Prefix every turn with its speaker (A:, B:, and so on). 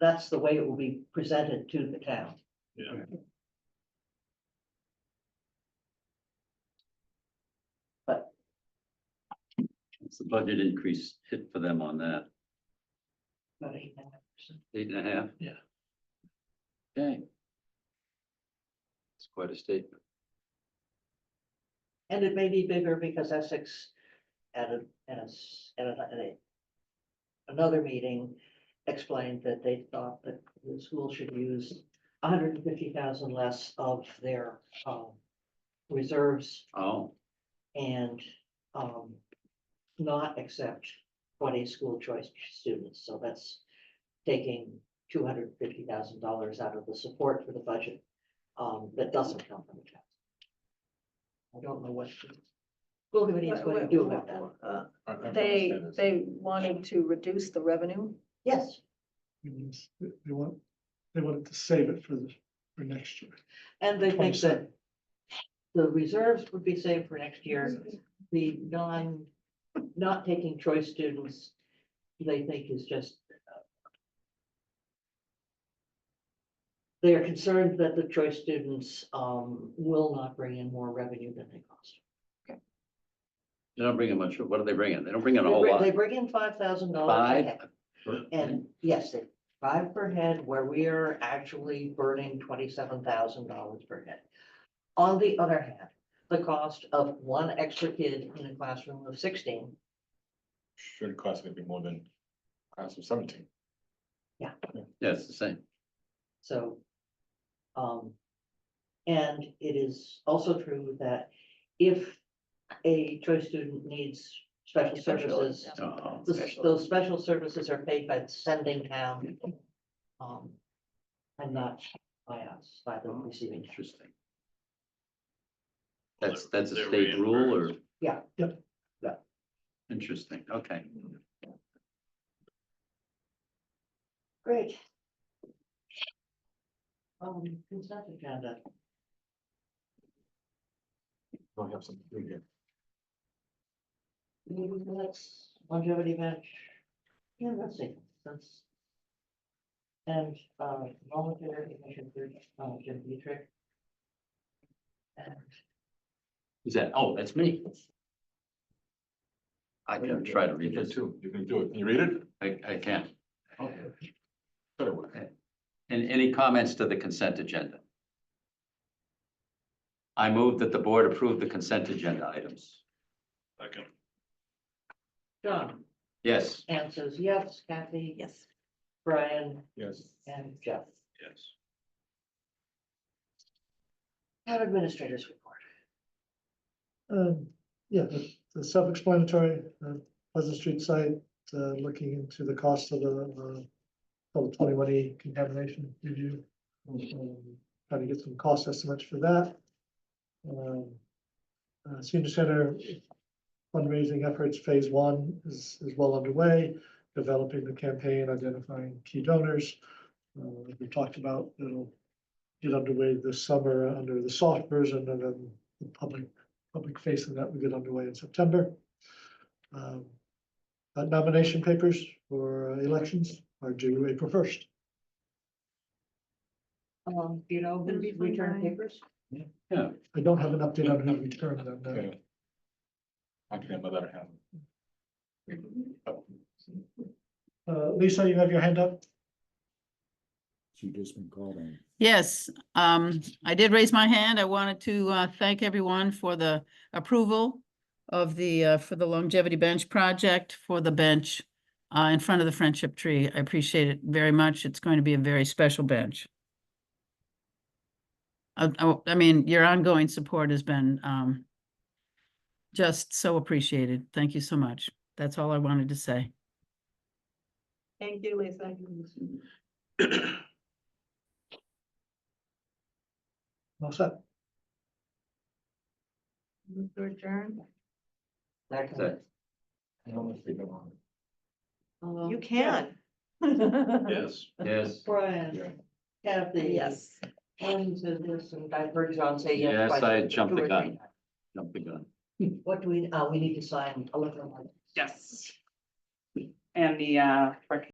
A: that's the way it will be presented to the town.
B: Yeah.
C: What's the budget increase hit for them on that?
A: About eight and a half percent.
C: Eight and a half?
B: Yeah.
C: Dang. It's quite a statement.
A: And it may be bigger because Essex at a, at a, s- at a, at a- another meeting explained that they thought that the school should use hundred and fifty thousand less of their, um, reserves
C: Oh,
A: and, um, not accept twenty school choice students. So that's taking two hundred and fifty thousand dollars out of the support for the budget, um, that doesn't come from the town. I don't know what the school committee is going to do about that.
D: Uh,
B: I- I
D: They,
B: understand this.
D: they wanted to reduce the revenue.
A: Yes,
E: means they they want, they wanted to save it for the, for next year.
A: and they think that
E: 27.
A: the reserves would be saved for next year. The non, not taking choice students, they think is just uh, they are concerned that the choice students um will not bring in more revenue than they cost.
C: they don't bring in much, what do they bring in? They don't bring in
A: They
C: a whole
A: bring-
C: lot.
A: They bring in five thousand dollars a
C: Five?
A: head, and yes, they- five per head, where we are actually burning twenty-seven thousand dollars per head. On the other hand, the cost of one extra kid in a classroom of sixteen,
B: Should cost gonna be more than class of seventeen.
C: Yeah, it's the same.
A: so. Um, and it is also true that if a choice student needs special services,
C: Oh,
A: the- those special services are paid by the sending town. Um, and not by us, by the receiving town.
C: Interesting. That's, that's a state rule or?
A: Yeah.
E: Yep.
A: Yeah.
C: Interesting, okay.
A: Great. Um, consent agenda,
B: Don't have something to do here.
A: meeting minutes, longevity bench. Yeah, that's it, that's. And, uh, voluntary commission for, uh, Jim Dietrich. And
C: Is that, oh, that's me. I can try to
B: You
C: read
B: can
C: this.
B: too. You can do it. Can you read it?
C: I, I can.
E: Oh.
B: Better work.
C: And any comments to the consent agenda? I move that the board approve the consent agenda items.
B: Second.
A: John,
C: Yes.
A: Anne says yes, Kathy,
D: Yes.
A: Brian,
B: Yes.
A: and Jeff.
B: Yes.
A: Town administrators report.
E: Um, yeah, the, the self-explanatory, uh, Pleasant Street site, uh, looking into the cost of the, uh, twenty-one E contamination review. Um, Trying to get some cost estimates for that. Um, uh, Senior Center fundraising efforts, phase one is, is well underway, developing the campaign, identifying key donors. Uh, as we talked about, it'll get underway this summer under the soft version and then the public public facing that we get underway in September. Um, uh, Nomination papers for uh, elections are due April first.
A: Um, do you know, who
D: Did we find
A: return
D: Brian?
A: papers?
E: I don't have an update on how we turn them now.
B: Okay. I can have my letter hand.
E: Uh, Lisa, you have your hand up?
F: She just been called on.
G: Yes, um, I did raise my hand. I wanted to, uh, thank everyone for the approval of the, uh, for the longevity bench project for the bench, uh, in front of the friendship tree. I appreciate it very much. It's going to be a very special bench. Uh, oh, I mean, your ongoing support has been, um, just so appreciated. Thank you so much. That's all I wanted to say.
D: Thank you, Lisa.
E: All set.
D: Move to adjourn.
A: That kind of-
C: That-
B: I don't know if we know.
A: Um,
D: You
A: yeah,
D: can.
B: Yes.
C: Yes.
B: Yeah.
A: Brian, Kathy.
D: Yes.
A: Anne says yes, and I've heard John say yes.
C: Yes,
A: twice,
C: I
A: two
C: jumped the
A: or three
C: gun. Jump the gun.
A: times. What do oh we, uh, we need to sign electronic.
H: Yes. And the, uh, rec-